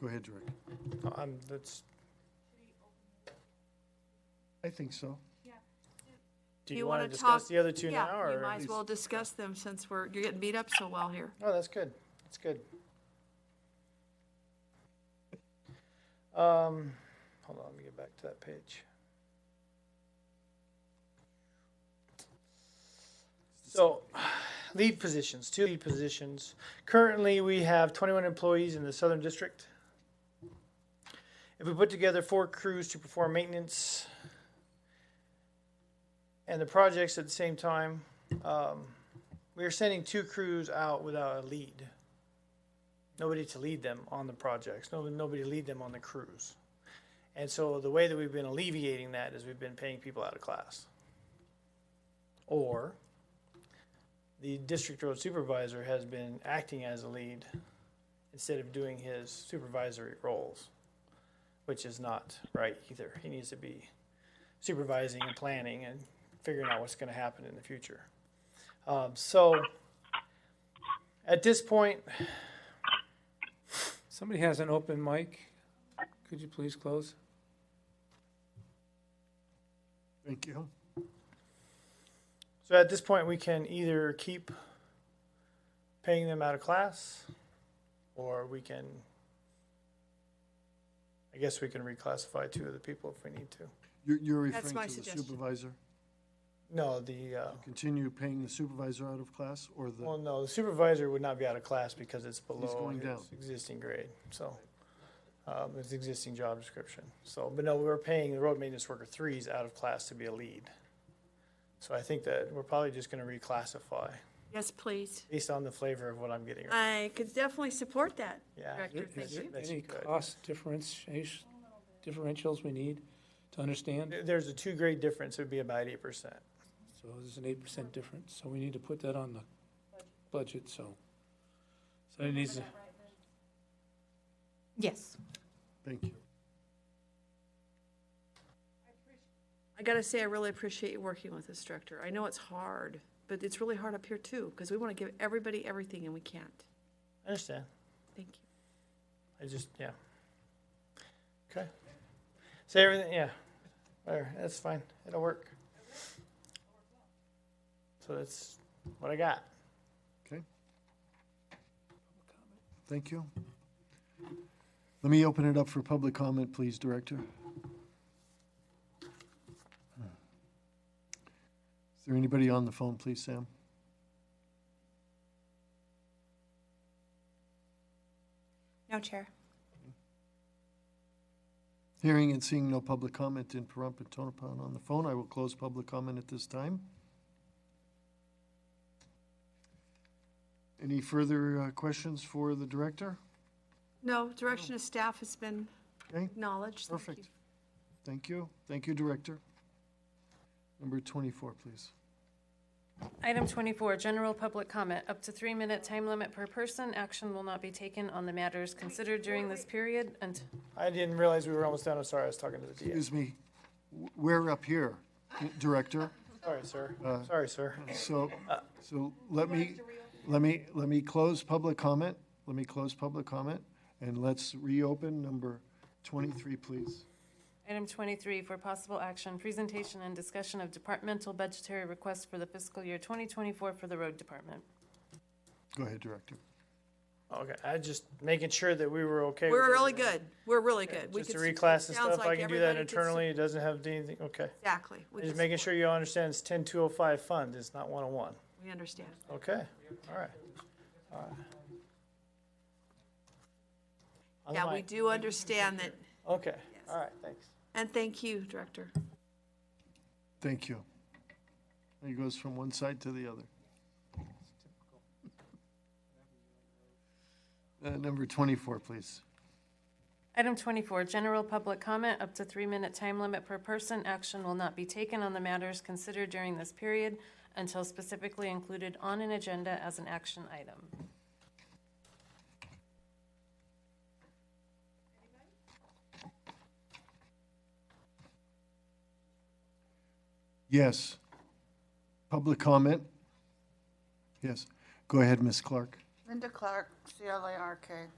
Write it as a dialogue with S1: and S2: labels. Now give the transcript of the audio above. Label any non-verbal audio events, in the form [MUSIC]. S1: Go ahead, Rick.
S2: I'm, that's,
S1: I think so.
S2: do you want to discuss
S3: talk-
S2: the other two
S3: yeah,
S2: now?
S3: You
S2: or-
S3: might as well discuss them since we're, you're getting beat up so well here.
S2: Oh, that's good. That's good. Um, hold on, let me get back to that page. So, lead positions, two lead positions. Currently, we have twenty-one employees in the Southern District. If we put together four crews to perform maintenance and the projects at the same time, um, we are sending two crews out without a lead. Nobody to lead them on the projects. No, nobody to lead them on the crews. And so the way that we've been alleviating that is we've been paying people out of class. Or the district road supervisor has been acting as a lead instead of doing his supervisory roles, which is not right either. He needs to be supervising and planning and figuring out what's going to happen in the future. Um, so at this point,
S4: Somebody has an open mic. Could you please close?
S1: Thank you.
S2: so at this point, we can either keep paying them out of class, or we can. I guess we can reclassify two of the people if we need to.
S1: You're, you're
S3: That's my
S1: referring to the
S3: suggestion.
S1: supervisor?
S2: No, the uh,
S1: Continue paying the supervisor out of class or
S2: well,
S1: the,
S2: no, the supervisor would not be out of class because it's below
S1: going
S2: his
S1: down.
S2: existing grade. So um, his existing job description. So, but no, we were paying the road maintenance worker threes out of class to be a lead. So I think that we're probably just going to reclassify.
S3: Yes, please.
S2: based on the flavor of what I'm getting. right
S3: I could definitely support that.
S2: Yeah.
S3: Uh, Director,
S4: Is
S3: thank
S4: there
S3: you.
S2: That's
S4: Any
S2: good.
S4: cost differentiation, differentials we need to understand?
S2: There- There's a two grade difference, it would be about eight percent.
S4: So there's an eight percent difference, so we need to put that on the budget, so. So it needs to,
S5: Yes.
S1: thank you.
S3: I gotta say, I really appreciate you working with this director. I know it's hard, but it's really hard up here too, because we want to give everybody everything and we can't.
S2: I understand,
S3: Thank you.
S2: I just, yeah. Okay. Say everything, yeah, whatever, that's fine, it'll work. So that's what I got.
S1: Okay. Thank you. Let me open it up for public comment, please, Director. Is there anybody on the phone, please, Sam?
S5: No, Chair.
S1: Hearing and seeing no public comment in Pahrump and Tonopah on the phone, I will close public comment at this time. Any further uh, questions for the director?
S3: No, direction of staff has been
S1: Okay,
S3: acknowledged. Thank you.
S1: perfect. Thank you. Thank you, Director. Number 24, please.
S6: Item 24, general public comment, up to three-minute time limit per person. Action will not be taken on the matters considered during this period and
S2: I didn't realize we were almost done, I'm sorry, I was talking to the DA.
S1: Excuse me, w- we're up here, Director,
S2: Sorry, sir, sorry, sir.
S1: so, so let me, let me, let me close public comment, let me close public comment, and let's reopen number 23, please.
S6: Item 23, for possible action, presentation and discussion of departmental budgetary requests for the fiscal year 2024 for the road department.
S1: Go ahead, Director.
S2: Okay, I just making sure that we were okay. with
S3: We're really
S2: everything.
S3: good. We're really good. We
S2: Just to
S3: could s-
S2: reclass and
S3: sounds
S2: stuff, I
S3: like
S2: can do that
S3: everybody could s-
S2: internally, it doesn't have anything, okay.
S3: Exactly. We
S2: Just
S3: could
S2: making
S3: support.
S2: sure you understand it's ten two oh five fund, it's not one oh one.
S3: We understand.
S2: Okay, all right. All right. On the
S3: Yeah, we
S2: mic.
S3: do understand that,
S2: Okay, all right, thanks.
S3: and thank you, Director.
S1: Thank you. It goes from one side to the other. [LAUGHS] Uh, Number 24, please.
S6: Item 24, general public comment, up to three-minute time limit per person. Action will not be taken on the matters considered during this period until specifically included on an agenda as an action item.
S1: Yes. Public comment? Yes. Go ahead, Ms. Clark.
S7: Linda Clark, C-L-A-R-K.